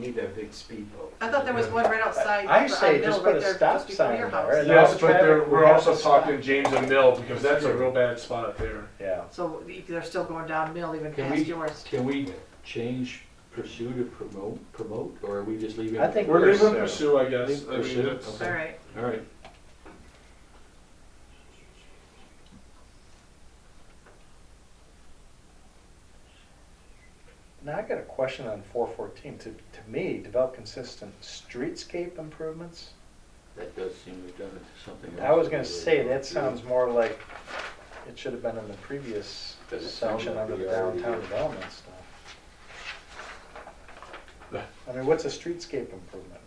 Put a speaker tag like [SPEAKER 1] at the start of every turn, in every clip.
[SPEAKER 1] Need that big speedboat.
[SPEAKER 2] I thought there was one right outside.
[SPEAKER 3] I
[SPEAKER 2] the- on
[SPEAKER 3] say
[SPEAKER 2] Mill,
[SPEAKER 3] just
[SPEAKER 2] right
[SPEAKER 3] put a
[SPEAKER 2] there,
[SPEAKER 3] stop
[SPEAKER 2] just before
[SPEAKER 3] sign
[SPEAKER 2] your
[SPEAKER 3] there,
[SPEAKER 2] house.
[SPEAKER 3] and
[SPEAKER 4] Yes,
[SPEAKER 3] Now
[SPEAKER 4] but there,
[SPEAKER 3] traffic, we
[SPEAKER 4] we're
[SPEAKER 3] have
[SPEAKER 4] also
[SPEAKER 3] to stop.
[SPEAKER 4] talking James and Mill, because that's a real bad spot there.
[SPEAKER 3] yeah.
[SPEAKER 2] So they're still going down Mill even
[SPEAKER 5] Can
[SPEAKER 2] past
[SPEAKER 5] we-
[SPEAKER 2] yours.
[SPEAKER 5] Can we change pursue to promote, promote, or are we just leaving?
[SPEAKER 3] I think-
[SPEAKER 4] We're leaving
[SPEAKER 3] Pursue.
[SPEAKER 4] Pursue, I guess. I mean,
[SPEAKER 5] Pursue,
[SPEAKER 4] that's-
[SPEAKER 5] okay.
[SPEAKER 2] All right.
[SPEAKER 5] All right,
[SPEAKER 3] Now I got a question on four fourteen. To, to me, develop consistent streetscape improvements.
[SPEAKER 5] that does seem redundant to something else.
[SPEAKER 3] I was gonna
[SPEAKER 5] we were
[SPEAKER 3] say,
[SPEAKER 5] going
[SPEAKER 3] that
[SPEAKER 5] to.
[SPEAKER 3] sounds more like it should have been in the previous
[SPEAKER 5] Does it sound
[SPEAKER 3] section
[SPEAKER 5] like
[SPEAKER 3] under
[SPEAKER 5] we
[SPEAKER 3] the
[SPEAKER 5] already
[SPEAKER 3] downtown
[SPEAKER 5] did?
[SPEAKER 3] development stuff. I mean, what's a streetscape improvement?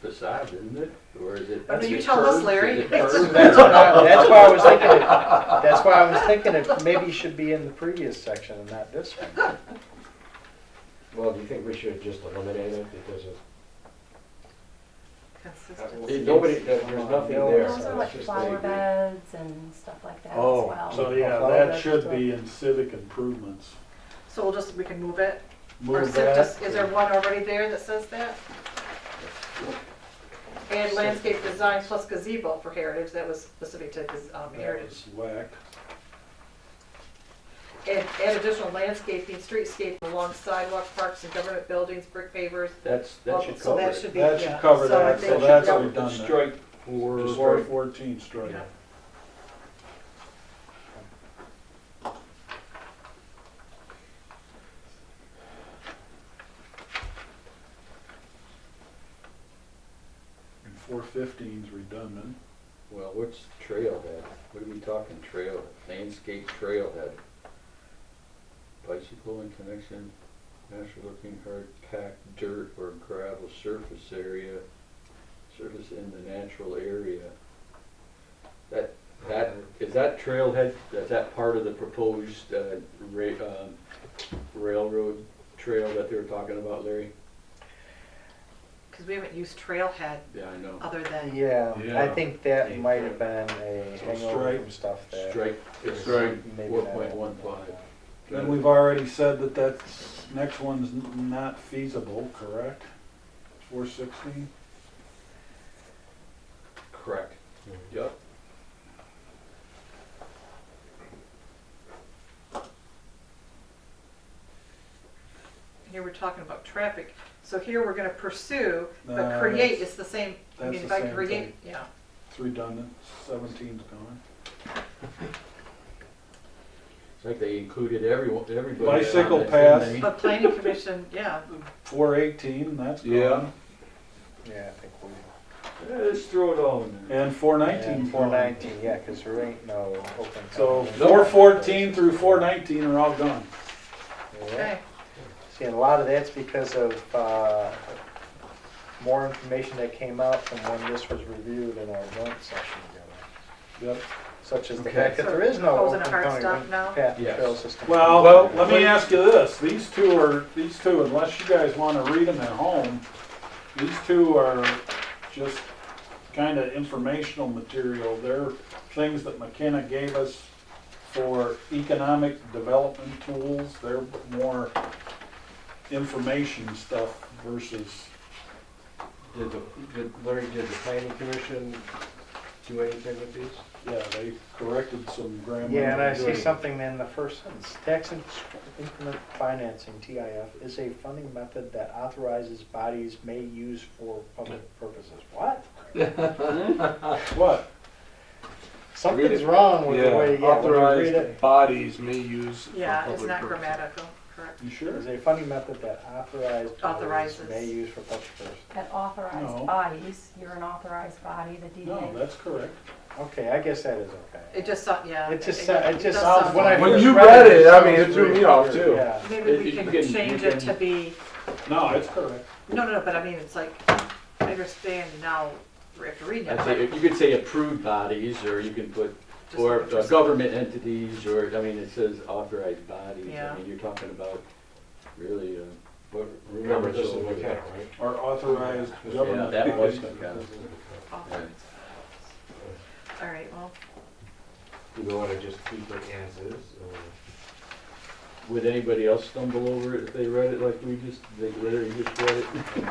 [SPEAKER 5] Facade, isn't it? Or is it?
[SPEAKER 2] Oh, no, you
[SPEAKER 5] is it
[SPEAKER 2] tell us,
[SPEAKER 5] curved?
[SPEAKER 2] Larry.
[SPEAKER 5] Is it curved?
[SPEAKER 3] That's what I, that's why I was thinking, it- that's why I was thinking it maybe should be in the previous section and not this one.
[SPEAKER 1] Well, do you think we should just eliminate it because
[SPEAKER 2] Consistent.
[SPEAKER 1] of, nobody, there's nothing there.
[SPEAKER 6] Those
[SPEAKER 1] so
[SPEAKER 6] are
[SPEAKER 1] it's
[SPEAKER 6] like
[SPEAKER 1] just
[SPEAKER 6] flower
[SPEAKER 1] a-
[SPEAKER 6] beds and stuff like that as
[SPEAKER 7] Oh,
[SPEAKER 6] well.
[SPEAKER 7] so yeah,
[SPEAKER 3] Well,
[SPEAKER 7] that
[SPEAKER 6] that's
[SPEAKER 7] should
[SPEAKER 6] what-
[SPEAKER 7] be in civic improvements.
[SPEAKER 2] So we'll just, we can move it? Or
[SPEAKER 7] Move
[SPEAKER 2] is it
[SPEAKER 7] that.
[SPEAKER 2] just, is there one already there that says that? And landscape design plus gazebo for heritage, that was specific to, gaz- um,
[SPEAKER 7] That
[SPEAKER 2] heritage.
[SPEAKER 7] was whack.
[SPEAKER 2] And, and additional landscaping, streetscape along sidewalk, parks and government buildings, brick pavers.
[SPEAKER 5] That's, that should
[SPEAKER 2] So
[SPEAKER 5] cover
[SPEAKER 2] that
[SPEAKER 5] it.
[SPEAKER 2] should be,
[SPEAKER 7] That
[SPEAKER 2] yeah.
[SPEAKER 7] should cover
[SPEAKER 2] So I
[SPEAKER 7] that,
[SPEAKER 2] think
[SPEAKER 7] so
[SPEAKER 2] we
[SPEAKER 7] that's
[SPEAKER 2] should-
[SPEAKER 7] redundant.
[SPEAKER 5] Strike or.
[SPEAKER 7] Four fourteen strike.
[SPEAKER 2] Yeah.
[SPEAKER 7] And four fifteen's redundant.
[SPEAKER 5] Well, what's trailhead? What are we talking trail, landscape trailhead? Bicycle in connection, natural looking hard packed dirt or gravel surface area, surface in the natural area. That, that, is that trailhead, is that part of the proposed, uh, ra- um, railroad trail that they were talking about, Larry?
[SPEAKER 2] Cause we haven't used trailhead
[SPEAKER 5] Yeah, I know.
[SPEAKER 2] other than,
[SPEAKER 3] Yeah, I
[SPEAKER 7] Yeah.
[SPEAKER 3] think that might have been a
[SPEAKER 7] So
[SPEAKER 3] hangover
[SPEAKER 7] strike-
[SPEAKER 3] from stuff that.
[SPEAKER 5] Strike, it's
[SPEAKER 7] Strike
[SPEAKER 3] maybe
[SPEAKER 5] four
[SPEAKER 3] not.
[SPEAKER 5] point one five.
[SPEAKER 7] Then we've already said that that next one's n- not feasible, correct? Four sixteen?
[SPEAKER 5] Correct. Yep.
[SPEAKER 2] here we're talking about traffic. So here we're gonna pursue, but
[SPEAKER 3] Uh,
[SPEAKER 7] No,
[SPEAKER 2] create
[SPEAKER 7] that's-
[SPEAKER 2] is the same, I
[SPEAKER 7] that's
[SPEAKER 2] mean, if
[SPEAKER 7] the
[SPEAKER 2] I
[SPEAKER 7] same
[SPEAKER 2] create,
[SPEAKER 7] thing.
[SPEAKER 2] yeah.
[SPEAKER 7] It's redundant, seventeen's gone.
[SPEAKER 5] It's like they included everyone, everybody. on
[SPEAKER 7] Bicycle
[SPEAKER 5] that,
[SPEAKER 7] path.
[SPEAKER 5] didn't they?
[SPEAKER 2] But planning commission, yeah,
[SPEAKER 7] Four eighteen, that's
[SPEAKER 5] Yeah.
[SPEAKER 7] gone.
[SPEAKER 3] Yeah, I think we.
[SPEAKER 5] Yeah, Let's throw it all in there.
[SPEAKER 7] And four nineteen's
[SPEAKER 3] Four
[SPEAKER 7] gone.
[SPEAKER 3] nineteen, yeah, cause there ain't no open.
[SPEAKER 7] So
[SPEAKER 3] container.
[SPEAKER 7] four fourteen through four nineteen are all gone.
[SPEAKER 3] Yeah.
[SPEAKER 2] okay.
[SPEAKER 3] See, and a lot of that's because of, uh, more information that came out from when this was reviewed in our joint session together.
[SPEAKER 7] Yep.
[SPEAKER 3] Such as the
[SPEAKER 5] Okay.
[SPEAKER 3] fact that
[SPEAKER 2] So
[SPEAKER 3] there is no
[SPEAKER 2] proposing
[SPEAKER 3] open
[SPEAKER 2] a hard
[SPEAKER 3] county
[SPEAKER 2] stop
[SPEAKER 3] road
[SPEAKER 2] now?
[SPEAKER 3] path and
[SPEAKER 5] Yes.
[SPEAKER 3] trail system.
[SPEAKER 7] Well, let me ask you this, these two are, these two, unless you guys wanna read them at home, these two are just kinda informational material, they're things that McKenna gave us for economic development tools, they're more information stuff versus,
[SPEAKER 1] Did the, did Larry, did the planning commission do anything with these?
[SPEAKER 7] yeah, they corrected some grammar.
[SPEAKER 3] Yeah, and I see
[SPEAKER 7] Good.
[SPEAKER 3] something in the first sentence, tax in- increment financing, TIF, is a funding method that authorizes bodies may use for public purposes. What?
[SPEAKER 7] What?
[SPEAKER 3] Something's wrong with the way, yeah, when you read it.
[SPEAKER 7] Authorized
[SPEAKER 4] Bodies may use. for
[SPEAKER 2] Yeah, it's
[SPEAKER 4] public
[SPEAKER 2] not
[SPEAKER 4] purposes.
[SPEAKER 2] grammatical, correct.
[SPEAKER 7] You sure?
[SPEAKER 3] Is a funding method that authorized bodies
[SPEAKER 2] Authorizes.
[SPEAKER 3] may use for public purposes.
[SPEAKER 6] At
[SPEAKER 7] No.
[SPEAKER 6] authorized bodies, you're an authorized body, the
[SPEAKER 7] No,
[SPEAKER 6] DDA.
[SPEAKER 7] that's correct.
[SPEAKER 3] Okay, I guess that is okay.
[SPEAKER 2] It just, sound- yeah.
[SPEAKER 3] It just,
[SPEAKER 2] does-
[SPEAKER 3] sa- it just
[SPEAKER 2] does
[SPEAKER 3] sounds, when I
[SPEAKER 2] sound-
[SPEAKER 4] When
[SPEAKER 3] first
[SPEAKER 4] you
[SPEAKER 3] read
[SPEAKER 4] read
[SPEAKER 3] it.
[SPEAKER 4] it, I mean,
[SPEAKER 3] sounds
[SPEAKER 4] it threw
[SPEAKER 3] very
[SPEAKER 4] me off,
[SPEAKER 3] clear,
[SPEAKER 4] too.
[SPEAKER 3] yeah.
[SPEAKER 2] Maybe we
[SPEAKER 5] You
[SPEAKER 2] can
[SPEAKER 5] can- you
[SPEAKER 2] change it to
[SPEAKER 5] can-
[SPEAKER 2] be,
[SPEAKER 7] No, it's correct.
[SPEAKER 2] no, no, no, but I mean, it's like, I understand now, after reading it,
[SPEAKER 5] I'd
[SPEAKER 2] but
[SPEAKER 5] say, you could say approved bodies, or you can put,
[SPEAKER 2] Just
[SPEAKER 5] or
[SPEAKER 2] what
[SPEAKER 5] uh,
[SPEAKER 2] you're saying.
[SPEAKER 5] government entities, or, I mean, it says authorized bodies.
[SPEAKER 2] Yeah.
[SPEAKER 5] I mean, you're talking about really, uh, what.
[SPEAKER 1] Remember, this is
[SPEAKER 5] so-
[SPEAKER 1] McKenna, right?
[SPEAKER 7] Or authorized government.
[SPEAKER 5] Yeah, that was
[SPEAKER 7] entity.
[SPEAKER 5] McKenna.
[SPEAKER 2] all
[SPEAKER 5] Right.
[SPEAKER 2] oh. right, well,
[SPEAKER 1] Do we wanna just keep it as is, or?
[SPEAKER 5] Would anybody else stumble over it if they read it like we just, they literally just read it?